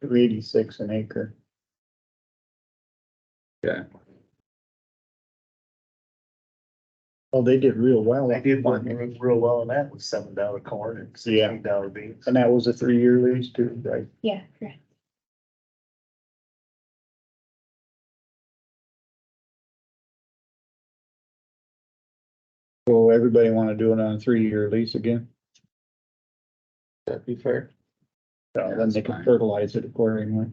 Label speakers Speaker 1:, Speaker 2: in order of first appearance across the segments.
Speaker 1: three eighty-six an acre.
Speaker 2: Okay.
Speaker 1: Oh, they did real well.
Speaker 3: They did one real, real well, and that was seven dollar corn and sixteen dollar beans.
Speaker 1: And that was a three-year lease too, right?
Speaker 4: Yeah, correct.
Speaker 1: Well, everybody wanna do it on a three-year lease again,
Speaker 5: That'd be fair.
Speaker 1: so then they can
Speaker 2: Fine.
Speaker 1: fertilize it accordingly.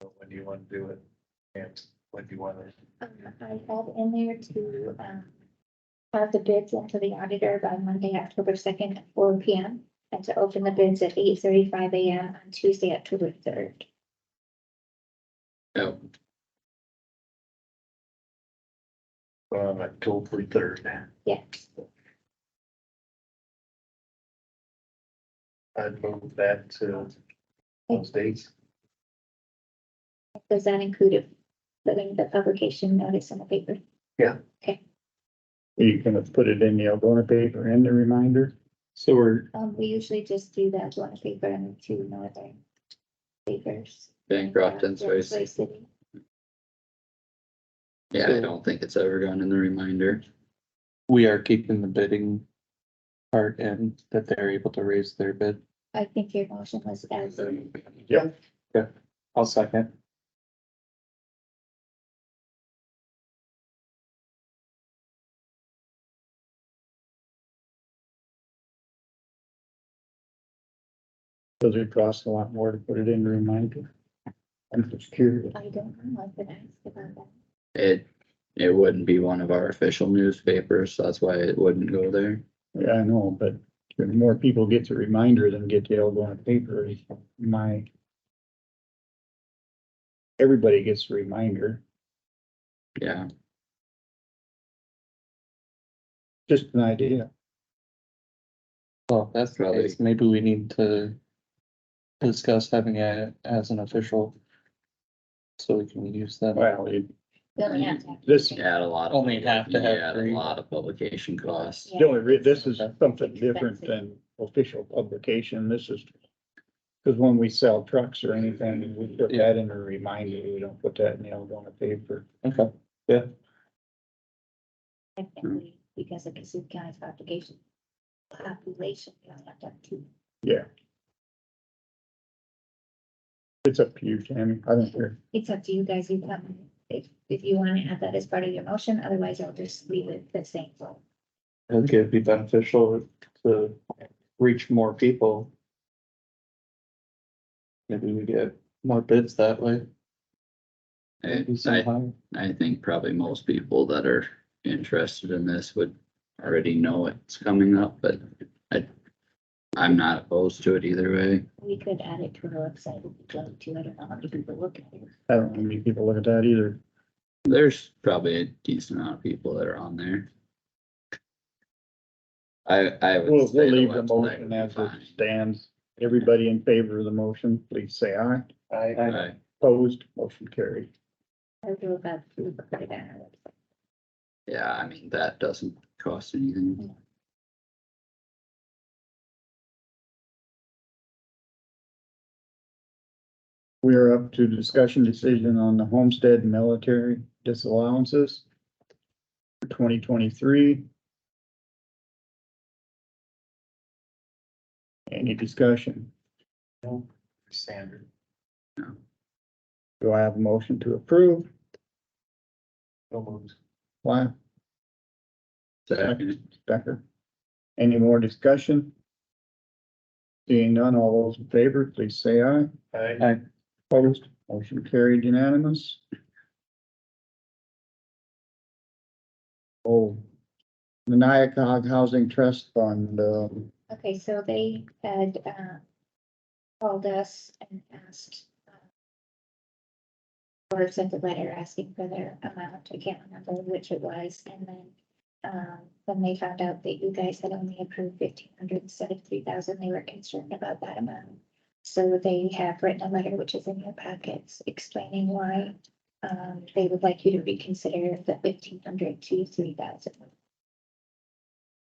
Speaker 3: When do you wanna do it? And when do you wanna?
Speaker 4: Uh, I have in there to, um, have the bids into the auditor by Monday, October second, at four P M. And to open the bids at eight thirty-five A M on Tuesday, October third.
Speaker 2: Yep.
Speaker 3: On October third.
Speaker 4: Yes.
Speaker 3: I'd move that to those dates.
Speaker 4: Does that include putting the publication notice on the paper?
Speaker 1: Are you gonna put it in the Algonah paper and the reminder?
Speaker 5: So we're,
Speaker 4: Um, we usually just do that one paper and two northern papers.
Speaker 2: Bancroft and
Speaker 4: Rockaway
Speaker 2: Swayze.
Speaker 4: City.
Speaker 2: Yeah, I don't think it's ever gone in the reminder.
Speaker 5: we are keeping the bidding part in that they're able to raise their bid.
Speaker 4: I think your motion was as,
Speaker 5: I'll second.
Speaker 1: Does it cost a lot more to put it in the reminder? I'm just curious.
Speaker 4: I don't know, I've been asked about that.
Speaker 2: It, it wouldn't be one of our official newspapers, so that's why it wouldn't go there.
Speaker 1: Yeah, I know, but the more people get the reminder than get the Algonah paper is my. Everybody gets the reminder,
Speaker 2: Yeah,
Speaker 1: just an idea.
Speaker 5: Well, if that's the
Speaker 2: Probably.
Speaker 5: case. Maybe we need to discuss having it as an official. So we can use them.
Speaker 1: Well, it
Speaker 4: We only have to have-
Speaker 1: This-
Speaker 2: you add a lot. of-
Speaker 5: Only have to
Speaker 2: you
Speaker 5: have
Speaker 2: Add
Speaker 5: three.
Speaker 2: a lot of publication costs.
Speaker 1: The only, re- this is something different than official publication, this is. Cause when we sell trucks or anything, we put that in a reminder, we don't put that in the Algonah paper.
Speaker 5: Okay,
Speaker 4: Technically, because of Cassup County's population. Population, you only have to have two.
Speaker 1: It's up to you, Tammy, I don't care.
Speaker 4: It's up to you guys, you come, if, if you wanna add that as part of your motion, otherwise I'll just leave it the same.
Speaker 5: I think it'd be beneficial to reach more people. Maybe we get more bids that way.
Speaker 2: I,
Speaker 5: Maybe some
Speaker 2: I,
Speaker 5: higher.
Speaker 2: I think probably most people that are interested in this would already know it's coming up, but I, I'm not opposed to it either way.
Speaker 4: We could add it to our website if you'd like to, I don't know how many people look at it.
Speaker 1: I don't know how many people look at that either.
Speaker 2: There's probably a decent amount of people that are on there. I, I would
Speaker 1: We'll,
Speaker 2: say
Speaker 1: we'll
Speaker 2: the
Speaker 1: leave the
Speaker 2: website
Speaker 1: motion
Speaker 2: would be
Speaker 1: as it
Speaker 2: fine.
Speaker 1: stands. Everybody in favor of the motion, please say aye.
Speaker 3: I,
Speaker 2: Right.
Speaker 1: Opposed, motion carried.
Speaker 4: I don't know about food, but put it on our website.
Speaker 2: Yeah, I mean, that doesn't cost anything.
Speaker 1: We are up to discussion decision on the homestead military disallowances for twenty twenty-three. Any discussion?
Speaker 3: standard.
Speaker 1: Do I have a motion to approve?
Speaker 3: No moves.
Speaker 1: Why,
Speaker 2: Second,
Speaker 1: Becker? Any more discussion? Seeing none, all those in favor, please say aye.
Speaker 3: I,
Speaker 1: Opposed, motion carried unanimous. Oh, the Nyakog Housing Trust Fund, um,
Speaker 4: Okay, so they had, uh, called us and asked, uh, or sent a letter asking for their amount, I can't remember which it was, and then, um, when they found out that you guys had only approved fifteen hundred instead of three thousand, they were concerned about that amount. So they have written a letter, which is in your packets, explaining why, um, they would like you to reconsider the fifteen hundred to three thousand.